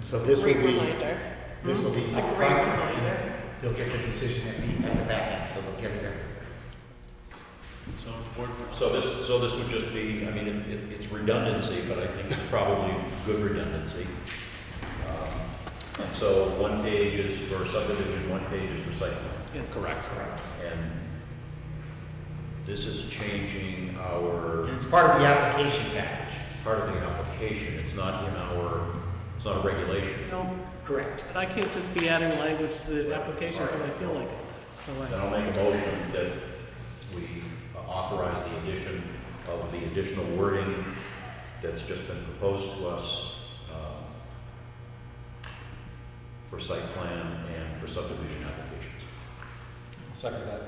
So this will Great be, reminder. this will be It's a upfront. great reminder. They'll get the decision at the, at the back end, so they'll get it in. So if the board, So this, so this would just be, I mean, it- it, it's redundancy, but I think it's probably good redundancy. Um, And so one page is for subdivision, one page is for site plan. Yes. Correct. Correct. And this is changing our, And it's part of the application package. part of the application, it's not in our, it's not a regulation. No, Correct. but I can't just be adding language to the application because I feel like it. So uh, Then I, I'll make a motion that we authorize the addition of the additional wording that's just been proposed to us um, for site plan and for subdivision applications. Second that.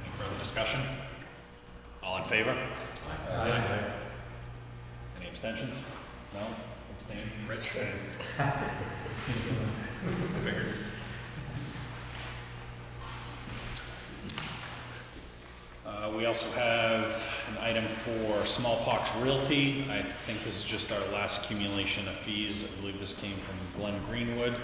any further discussion? All in favor? Any abstentions? No? Abstain? Rich? Figured. Uh, we also have an item for smallpox realty. I think this is just our last accumulation of fees. I believe this came from Glenn Greenwood.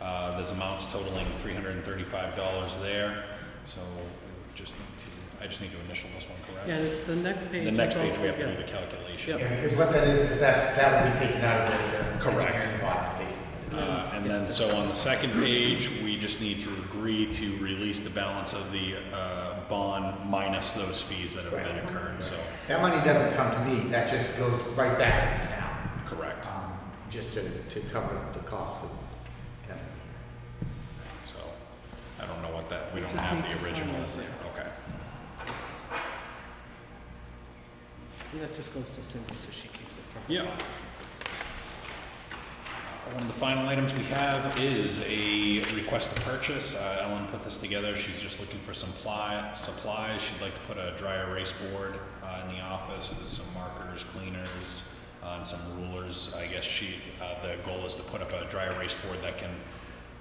Uh, there's amounts totaling three hundred and thirty-five dollars there, so we just need to, I just need to initial this one, correct? yeah, and it's the next page. The is next page, also- we have to yeah. do the calculation. Yeah, because what that is, is that's, that will be taken out of the the Correct. engineering bond, basically. Uh, And then, so on the second page, we just need to agree to release the balance of the uh, bond minus those fees that have been incurred, so, That money doesn't come to me, that just goes right back to the town, correct. um, just to, to cover the costs of having it So, I don't know what that, we don't Just have need to the sign original it. is there, okay. And that just goes to Cindy, so she keeps it from. Yeah. One of Um, the final items we have is a request to purchase. Uh, Ellen put this together. She's just looking for some ply, supplies. She'd like to put a dry erase board uh, in the office. There's some markers, cleaners, uh, and some rulers. I guess she, uh, the goal is to put up a dry erase board that can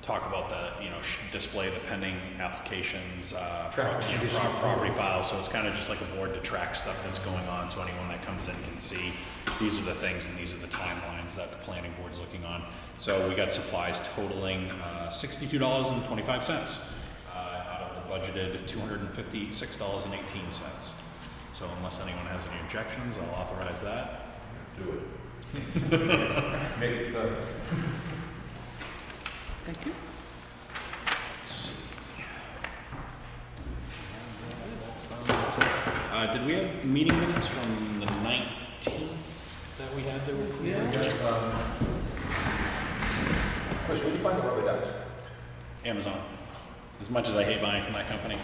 talk about the, you know, sh- display the pending applications, uh, pro- Traffic you know, condition pro- property approvals. file, so it's kind of just like a board to track stuff that's going on, so anyone that comes in can see, these are the things and these are the timelines that the planning board's looking on. So we got supplies totaling uh, sixty-two dollars and twenty-five cents, uh, out of the budgeted two hundred and fifty-six dollars and eighteen cents. So unless anyone has any objections, I'll authorize that. Do it. Make it so. Thank you. Let's see. Uh, did we have meeting minutes from the nineteenth that we had to approve? Chris, where do you find the rubber ducks? Amazon. As much as I hate buying from that company,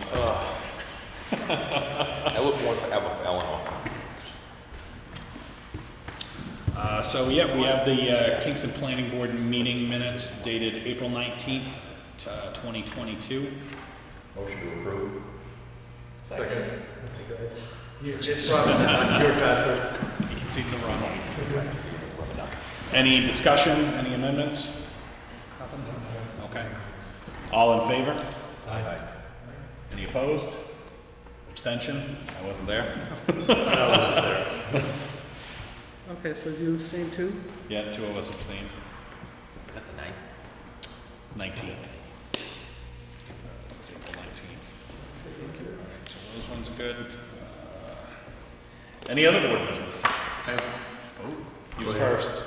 I look one forever for Eleanor. Uh, so yeah, we have the uh, Kingston Planning Board meeting minutes dated April nineteenth, uh, twenty twenty-two. Motion to approve. Second. You just brought this up. You're faster. You can see the wrong one. Any discussion, any amendments? Nothing. Okay. All in favor? Aye. Any opposed? Abstention? I wasn't there. Okay, so you abstain too? Yeah, two of us abstained. Got the ninth. Nineteenth. It's April nineteenth. Alright, so those ones are good. Uh, Any other board business? oh, You Go ahead. first.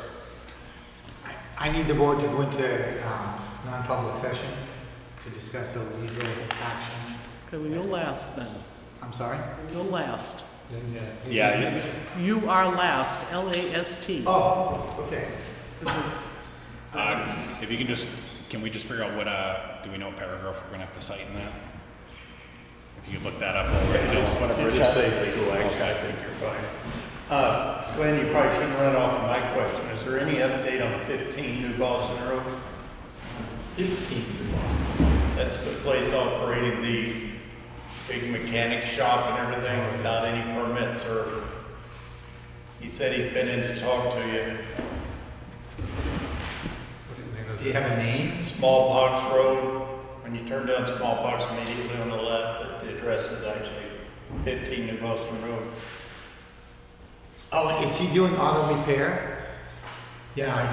I need the board to go into, um, non-public session to discuss a legal action. Okay, well, you're last then. I'm sorry? You're last. Yeah, yeah. You are last, L-A-S-T. Oh, okay. Uh, if you can just, can we just figure out what, uh, do we know what paragraph we're gonna have to cite in that? If you could look that up over at Bill's. You just say legal action, I think you're fine. Uh, Glenn, you probably shouldn't run off my question. Is there any update on 15 New Boston Road? 15 New Boston. That's the place operating the big mechanic shop and everything without any permits or, he said he's been in to talk to you. Do you have a name? Smallpox Road, when you turn down Smallpox immediately on the left, the address is actually 15 New Boston Road. Oh, is he doing auto repair? Yeah, I